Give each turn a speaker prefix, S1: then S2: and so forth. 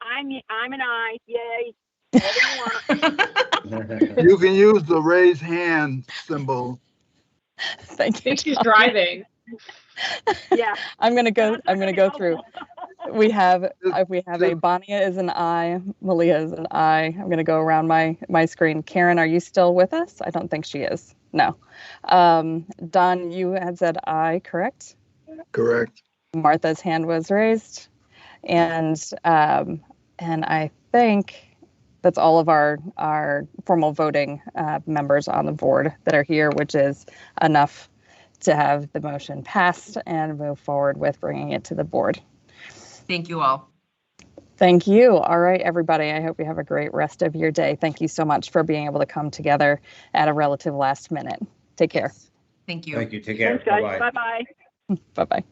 S1: I'm, I'm an I, yay. Whatever you want.
S2: You can use the raise hand symbol.
S3: Thank
S4: I
S3: you.
S4: think she's
S3: Tom.
S4: driving.
S1: Yeah.
S3: I'm gonna go. I'm gonna go through. We have uh, we have a
S2: Just-
S3: Bonia is an I, Malia is an I. I'm gonna go around my my screen. Karen, are you still with us? I don't think she is. No. Um, Don, you had said I, correct?
S2: Correct.
S3: Martha's hand was raised, and um, and I think that's all of our our formal voting uh, members on the board that are here, which is enough to have the motion passed and move forward with bringing it to the board.
S5: Thank you all.
S3: Thank you. All right, everybody. I hope you have a great rest of your day. Thank you so much for being able to come together at a relative last minute. Take care.
S5: Thank you.
S6: Thank you. Take care.
S1: Thanks, guys.
S6: Bye-bye.
S1: Bye-bye.
S3: Bye bye.